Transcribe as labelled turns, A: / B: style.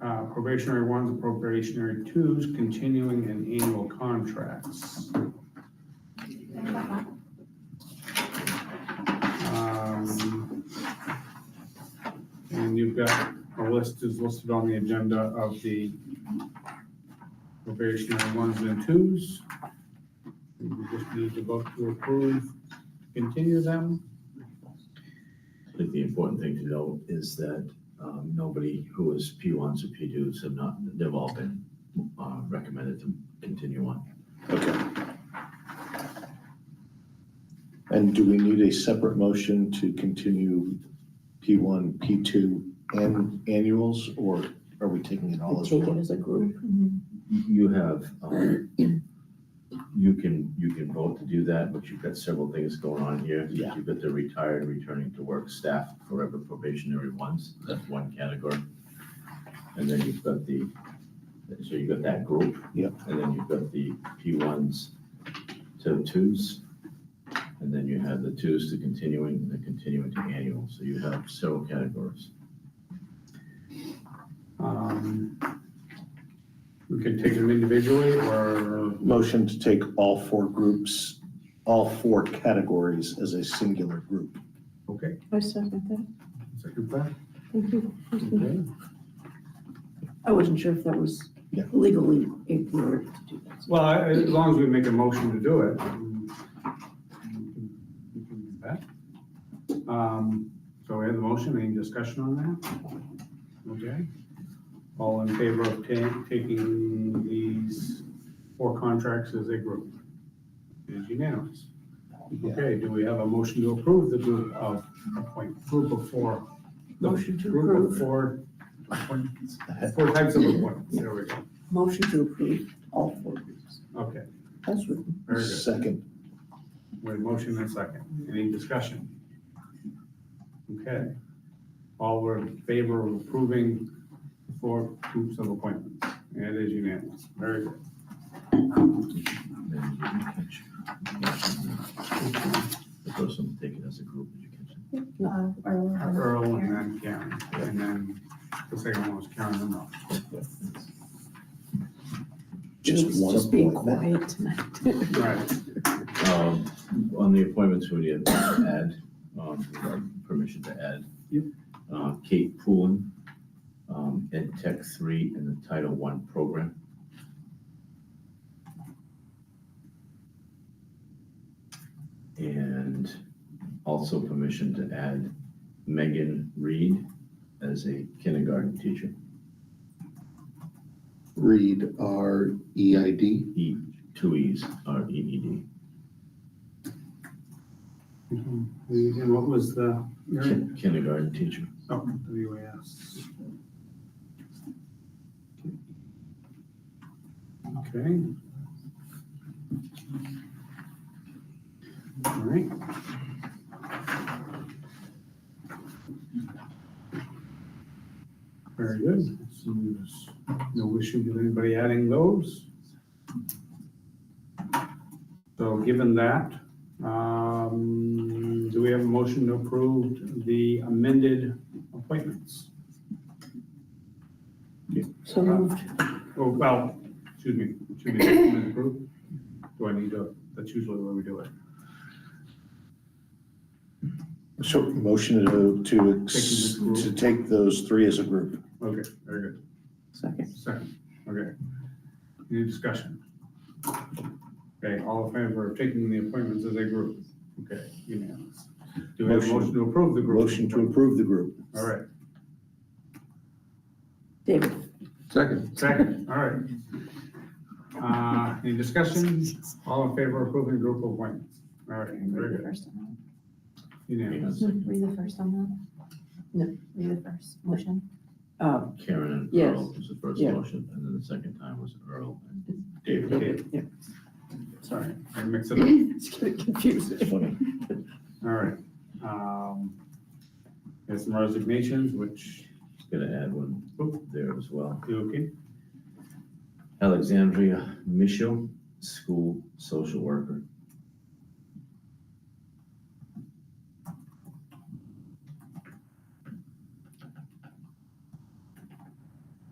A: Uh, probationary ones, probationary twos, continuing and annual contracts. Um, And you've got a list is listed on the agenda of the probationary ones and twos. We just need to vote to approve, continue them.
B: I think the important thing to know is that um, nobody who is P1s or P2s have not, they've all been uh, recommended to continue on.
C: Okay. And do we need a separate motion to continue P1, P2, and annuals, or are we taking it all as
D: Take it
C: one?
D: as a group.
B: You- You have, um, you can, you can vote to do that, but you've got several things going on here.
C: Yeah.
B: You've got the retired, returning to work staff, forever probationary ones, that's one category. And then you've got the, so you've got that group.
C: Yep.
B: And then you've got the P ones to twos. And then you have the twos to continuing, and the continuing to annual, so you have several categories.
A: Um, We could take them individually or
C: Motion to take all four groups, all four categories as a singular group.
A: Okay,
D: I second that.
A: second that,
D: Thank you.
A: okay.
D: I wasn't sure if that was
C: Yeah.
D: legally in order to do that.
A: Well, I- as long as we make a motion to do it. um, we can do that. Um, So we have the motion, any discussion on that? Okay. All in favor of ta- taking these four contracts as a group? It is unanimous. Okay, do we have a motion to approve the group of appoint, group of four?
D: Motion to
A: Group of
D: approve.
A: four, appointments, four types of appointments, there we go.
D: Motion to approve all four groups.
A: Okay,
D: That's written.
A: very good.
C: Second,
A: With a motion and a second, any discussion? Okay, all were in favor of approving four groups of appointments, and it is unanimous, very good.
B: And then you can catch- The person taken as a group, did you catch that?
E: Uh, Earl.
A: Earl and then Karen, and then the second one was Karen and Ralph.
C: just one
D: Just being
C: appointment.
D: quiet tonight.
A: Right,
B: Um, On the appointments, we need to add, um, we have permission to add.
A: Yep.
B: uh, Kate Poulin, um, Ed Tech Three in the Title One program. And also permission to add Megan Reed as a kindergarten teacher,
C: Read our EID.
B: E, two E's, R E E D.
A: and what was the,
B: Kin- Kindergarten teacher.
A: oh, WAS. Okay. All right, Very good. So there's no issue with anybody adding those. So given that, um, do we have a motion to approve the amended appointments?
D: So moved.
A: Oh, well, excuse me, excuse me, amended approved? Do I need to, that's usually the way we do it.
C: So motion to, to, ex-
A: Taking the group.
C: to take those three as a group.
A: Okay, very good.
D: Second.
A: Second, okay. Any discussion? Okay, all in favor of taking the appointments as a group? Okay, unanimous. Do we have a
C: Motion.
A: motion to approve the group?
C: Motion to approve the group.
A: All right,
D: David.
F: Second.
A: second, all right. Uh, any discussion? All in favor of approving group appointments? All right, very
E: Read the
A: good,
E: first one.
B: Hang
A: unanimous.
B: on a second.
E: Read the first one then.
D: No.
E: Read the first motion.
D: Uh,
B: Karen and
D: Yes.
B: Earl was the first
D: Yeah.
B: motion, and then the second time was Earl and David.
A: Okay,
D: Yeah.
A: Sorry, I mixed it up,
D: It's getting confusing.
B: Funny.
A: all right. Um, There's some resignations, which,
B: Just Gonna add one there as well.
A: you okay?
B: Alexandria Michel, school social worker.